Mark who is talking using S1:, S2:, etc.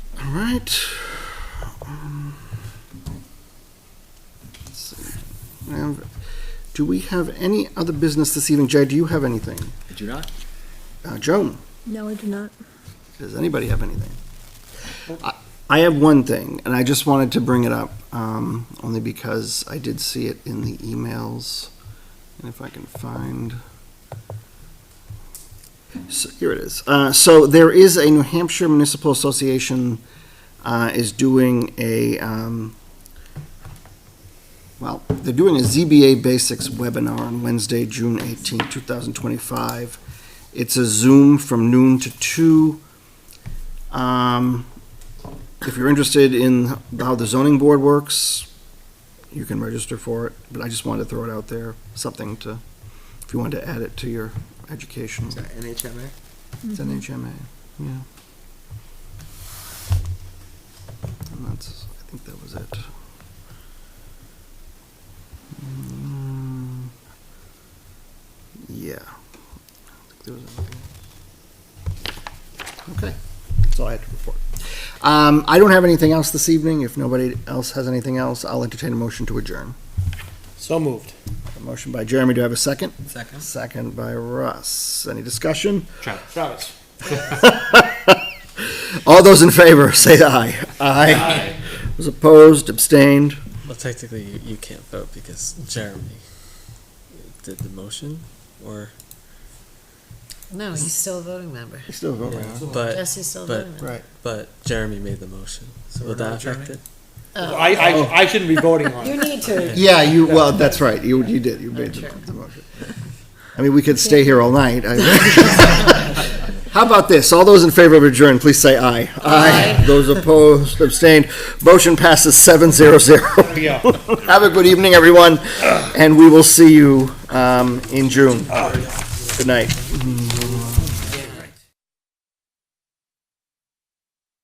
S1: All right. Um, let's see. And Do we have any other business this evening? Jay, do you have anything?
S2: I do not.
S1: Uh, Joan,
S3: No, I do not.
S1: does anybody have anything? I- I have one thing, and I just wanted to bring it up, um, only because I did see it in the emails. And if I can find. So, here it is. Uh, so there is a New Hampshire Municipal Association uh, is doing a, um, well, they're doing a ZBA Basics webinar on Wednesday, June 18, 2025. It's a Zoom from noon to two. Um, If you're interested in how the zoning board works, you can register for it, but I just wanted to throw it out there, something to, if you wanted to add it to your education.
S2: Is that NHMA?
S1: It's NHMA, yeah. And that's, I think that was it. Mm, Yeah. I don't think there was anything else. Okay, that's all I had to report. Um, I don't have anything else this evening. If nobody else has anything else, I'll entertain a motion to adjourn.
S4: So moved.
S1: A motion by Jeremy, do I have a second?
S2: Second.
S1: Second by Russ. Any discussion?
S4: Travis.
S1: All those in favor, say aye. Aye. Was opposed, abstained.
S5: Well, technically, you, you can't vote because Jeremy did the motion, or
S6: No, he's still a voting member.
S1: You still vote,
S5: yeah, but
S6: Yes, he's still a
S5: but-
S6: voting member.
S5: but Jeremy made the motion. So
S2: we're
S5: would that
S2: not
S5: affect
S2: Jeremy?
S5: it?
S6: Oh.
S4: I, I, I shouldn't be voting on it.
S6: You need to.
S1: Yeah, you, well, that's right, you, you did, you made the
S6: Sure.
S1: the motion. I mean, we could stay here all night. I- How about this? All those in favor of adjourn, please say aye. Aye. Those opposed, abstained. Motion passes seven zero zero.
S4: we go.
S1: Have a good evening, everyone, Oh, and we will see you, um, in June. Good night.